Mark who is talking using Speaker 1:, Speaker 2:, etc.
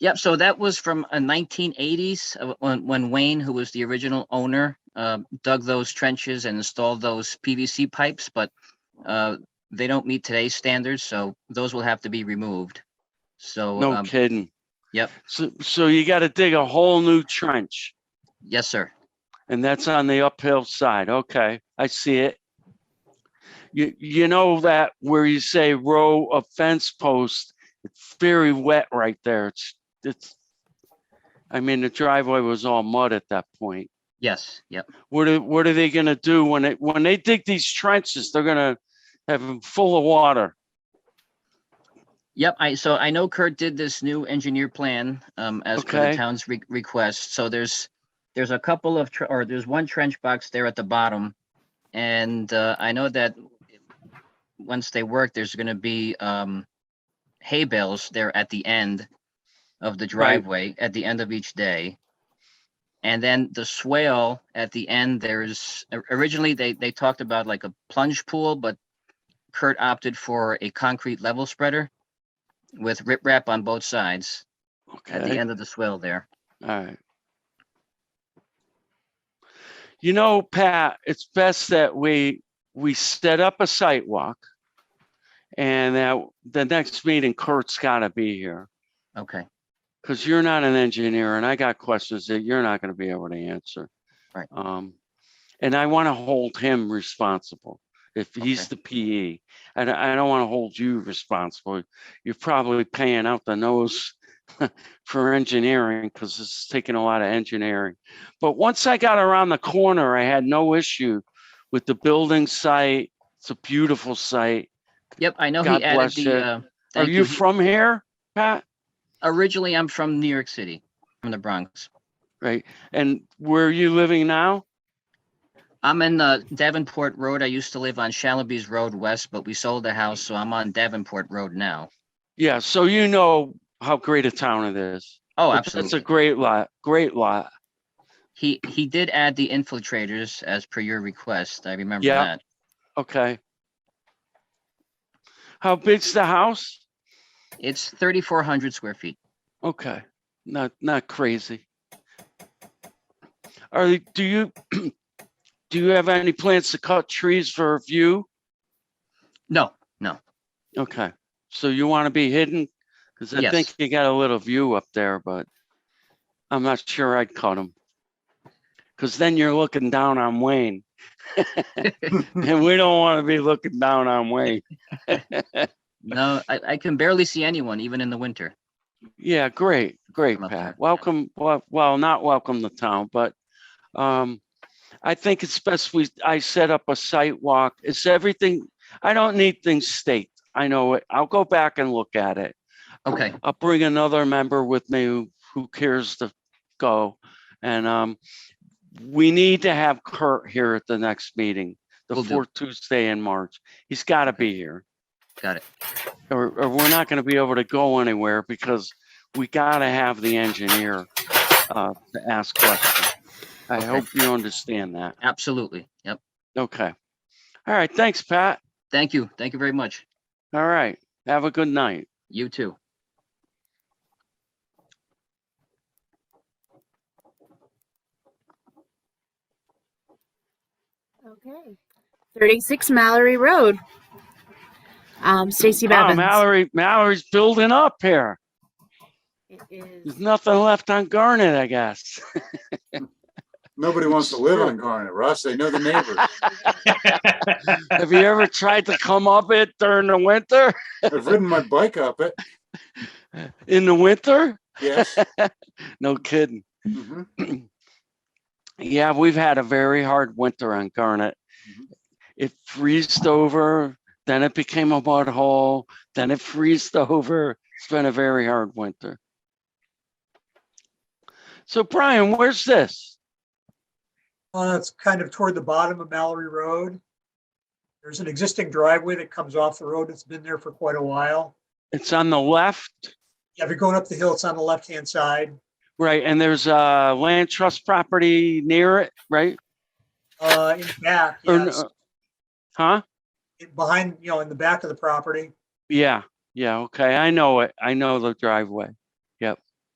Speaker 1: Yep, so that was from uh, 1980s, uh, when, when Wayne, who was the original owner, uh, dug those trenches and installed those PVC pipes, but uh, they don't meet today's standards, so those will have to be removed. So,
Speaker 2: No
Speaker 1: um,
Speaker 2: kidding.
Speaker 1: yep.
Speaker 2: So, so you got to dig a whole new trench
Speaker 1: yes, sir.
Speaker 2: and that's on the uphill side. Okay, I see it. You, you know that where you say row of fence posts, it's very wet right there. It's, it's, I mean, the driveway was all mud at that point.
Speaker 1: Yes, yep,
Speaker 2: What are, what are they gonna do when it, when they dig these trenches? They're gonna have them full of water.
Speaker 1: yep. I, so I know Kurt did this new engineer plan um, as per the
Speaker 2: Okay.
Speaker 1: town's re- request. So there's, there's a couple of, tr- or there's one trench box there at the bottom. And uh, I know that once they work, there's going to be um, hay bales there at the end of the driveway, at the end of each day. And then the swale at the end, there's, or- originally, they, they talked about like a plunge pool, but Kurt opted for a concrete level spreader with riprap on both sides at the
Speaker 2: Okay,
Speaker 1: end of the swale there.
Speaker 2: all right. You know, Pat, it's best that we, we set up a sidewalk. And that the next meeting Kurt's gotta be here,
Speaker 1: Okay,
Speaker 2: because you're not an engineer and I got questions that you're not gonna be able to answer.
Speaker 1: Right.
Speaker 2: Um, and I want to hold him responsible if he's
Speaker 1: Okay.
Speaker 2: the PE. And I I don't want to hold you responsible. You're probably paying out the nose for engineering because it's taking a lot of engineering. But once I got around the corner, I had no issue with the building site. It's a beautiful site.
Speaker 1: yep, I know
Speaker 2: God
Speaker 1: he added
Speaker 2: bless you.
Speaker 1: the, uh,
Speaker 2: Are
Speaker 1: thank
Speaker 2: you
Speaker 1: you. He-
Speaker 2: from here, Pat?
Speaker 1: Originally, I'm from New York City, from the Bronx.
Speaker 2: Right. And where are you living now?
Speaker 1: I'm in uh, Davenport Road. I used to live on Shalaby's Road West, but we sold the house, so I'm on Davenport Road now.
Speaker 2: Yeah, so you know how great a town it is.
Speaker 1: Oh,
Speaker 2: It's- It's a
Speaker 1: absolutely.
Speaker 2: great lot, great lot.
Speaker 1: He, he did add the infiltrators as per your request. I remember
Speaker 2: Yeah.
Speaker 1: that.
Speaker 2: Okay. How big's the house?
Speaker 1: It's 3,400 square feet.
Speaker 2: Okay, not, not crazy. Are, you- do you, do you have any plans to cut trees for view?
Speaker 1: No,
Speaker 2: Okay, so you want to be hidden? Because I
Speaker 1: Yes.
Speaker 2: think you got a little view up there, but I'm not sure I'd cut them. Because then you're looking down on Wayne. And we don't want to be looking down on Wayne.
Speaker 1: no, I, I can barely see anyone, even in the winter.
Speaker 2: Yeah, great, great,
Speaker 1: Love that, yeah.
Speaker 2: Pat. Welcome, well, well, not welcome to town, but um, I think it's best we, I set up a site walk. It's everything, I don't need things staked. I know it. I'll go back and look at it.
Speaker 1: Okay,
Speaker 2: I'll bring another member with me who- who cares to go. And um, we need to have Kurt here at the next meeting, the
Speaker 1: Will do.
Speaker 2: fourth Tuesday in March. He's got to be here
Speaker 1: got it.
Speaker 2: or, or we're not gonna be able to go anywhere because we gotta have the engineer uh, to ask questions. I
Speaker 1: Okay.
Speaker 2: hope you understand that.
Speaker 1: Absolutely. Yep.
Speaker 2: Okay. All right, thanks, Pat.
Speaker 1: Thank you. Thank you very much.
Speaker 2: All right, have a good night.
Speaker 1: You too.
Speaker 3: Okay. 36 Mallory Road. Um, Stacy
Speaker 2: Wow,
Speaker 3: Bevins.
Speaker 2: Mallory, Mallory's building up here.
Speaker 3: It is-
Speaker 2: There's nothing left on Garnet, I guess.
Speaker 4: Nobody wants to live on Garnet, Russ. They know the neighbors.
Speaker 2: Have you ever tried to come up it during the winter?
Speaker 4: I've ridden my bike up it.
Speaker 2: In the winter?
Speaker 4: Yes.
Speaker 2: No kidding.
Speaker 4: Mhm.
Speaker 2: Yeah, we've had a very hard winter on Garnet.
Speaker 4: Mhm.
Speaker 2: It freezed over, then it became a mud hole, then it freezed over. It's been a very hard winter. So Brian, where's this?
Speaker 5: Uh, it's kind of toward the bottom of Mallory Road. There's an existing driveway that comes off the road. It's been there for quite a while.
Speaker 2: It's on the left,
Speaker 5: Yeah, if you're going up the hill, it's on the left-hand side.
Speaker 2: right? And there's a land trust property near it, right?
Speaker 5: Uh, in back,
Speaker 2: Or n- uh,
Speaker 5: yes,
Speaker 2: Huh?
Speaker 5: It- behind, you know, in the back of the property.
Speaker 2: Yeah, yeah, okay. I know it. I know the driveway.